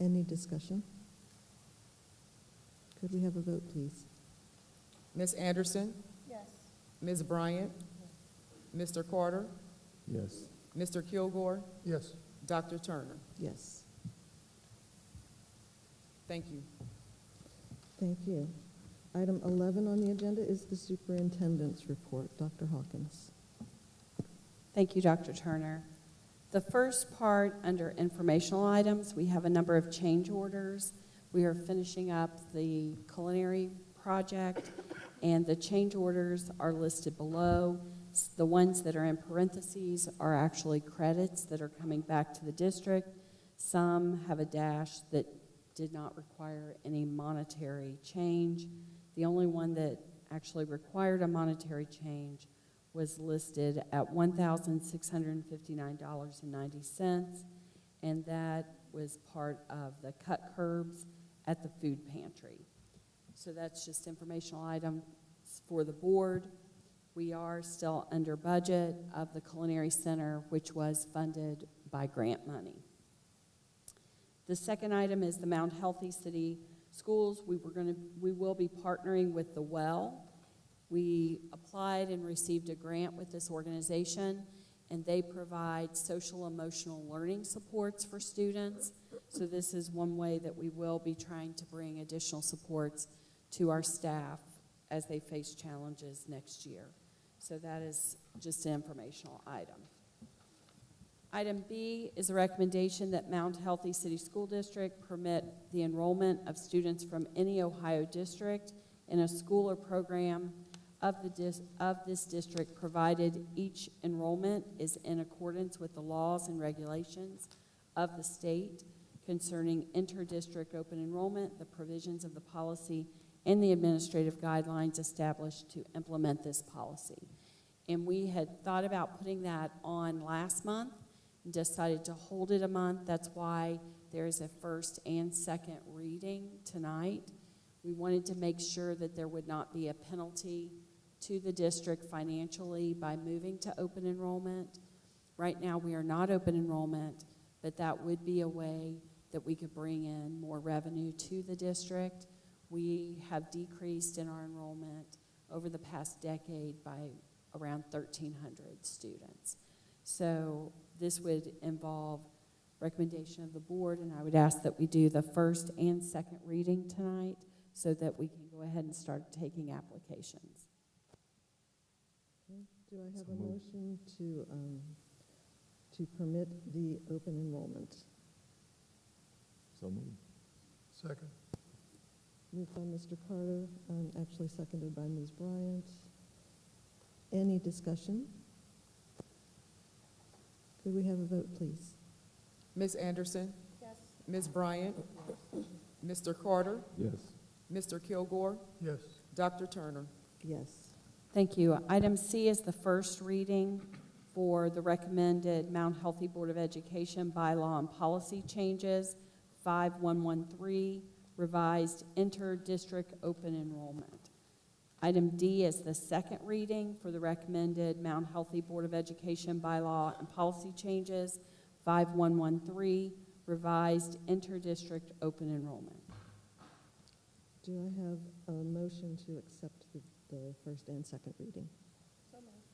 Any discussion? Could we have a vote, please? Ms. Anderson? Yes. Ms. Bryant? Mr. Carter? Yes. Mr. Kilgore? Yes. Dr. Turner? Yes, Thank you. thank you. Item 11 on the agenda is the superintendent's report. Dr. Hawkins. Thank you, Dr. Turner. The first part, under informational items, we have a number of change orders. We are finishing up the culinary project, and the change orders are listed below. S- The ones that are in parentheses are actually credits that are coming back to the district. Some have a dash that did not require any monetary change. The only one that actually required a monetary change was listed at $1,659.90, and that was part of the cut curbs at the food pantry. So that's just informational items for the board. We are still under budget of the Culinary Center, which was funded by grant money. The second item is the Mount Healthy City Schools. We were going to, we will be partnering with the Well. We applied and received a grant with this organization, and they provide social emotional learning supports for students. So this is one way that we will be trying to bring additional supports to our staff as they face challenges next year. So that is just an informational item. Item B is a recommendation that Mount Healthy City School District permit the enrollment of students from any Ohio district in a school or program of the dis, of this district, provided each enrollment is in accordance with the laws and regulations of the state concerning inter-district open enrollment, the provisions of the policy, and the administrative guidelines established to implement this policy. And we had thought about putting that on last month, and decided to hold it a month. That's why there is a first and second reading tonight. We wanted to make sure that there would not be a penalty to the district financially by moving to open enrollment. Right now, we are not open enrollment, but that would be a way that we could bring in more revenue to the district. We have decreased in our enrollment over the past decade by around 1,300 students. So this would involve recommendation of the board, and I would ask that we do the first and second reading tonight so that we can go ahead and start taking applications. Do I have So a moved. motion to, um, to permit the open enrollment? So moved. Second. Moved by Mr. Carter, um, actually seconded by Ms. Bryant. Any discussion? Could we have a vote, please? Ms. Anderson? Yes. Ms. Bryant? Mr. Carter? Yes. Mr. Kilgore? Yes. Dr. Turner? Yes. Thank you. Item C is the first reading for the recommended Mount Healthy Board of Education bylaw and policy changes, 5113, revised inter-district open enrollment. Item D is the second reading for the recommended Mount Healthy Board of Education bylaw and policy changes, 5113, revised inter-district open enrollment. Do I have a motion to accept the, the first and second reading? So moved.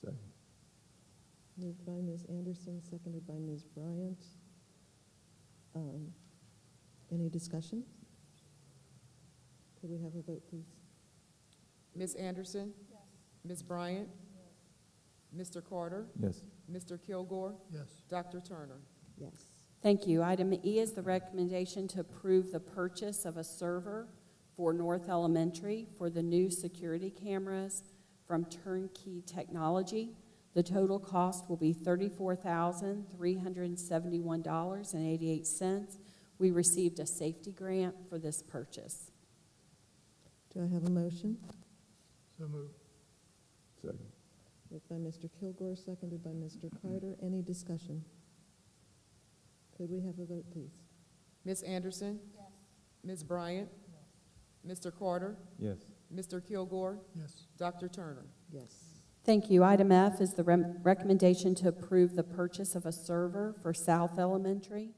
Second. Moved by Ms. Anderson, seconded by Ms. Bryant. Um, Any discussion? Could we have a vote, please? Ms. Anderson? Yes. Ms. Bryant? Mr. Carter? Yes. Mr. Kilgore? Yes. Dr. Turner? Yes. Thank you. Item E is the recommendation to approve the purchase of a server for North Elementary for the new security cameras from Turnkey Technology. The total cost will be $34,371.88. We received a safety grant for this purchase. Do I have a motion? So moved. Second. Moved by Mr. Kilgore, seconded by Mr. Carter. Any discussion? Could we have a vote, please? Ms. Anderson? Yes. Ms. Bryant? Mr. Carter? Yes. Mr. Kilgore? Yes. Dr. Turner? Yes. Thank you. Item F is the rem- recommendation to approve the purchase of a server for South Elementary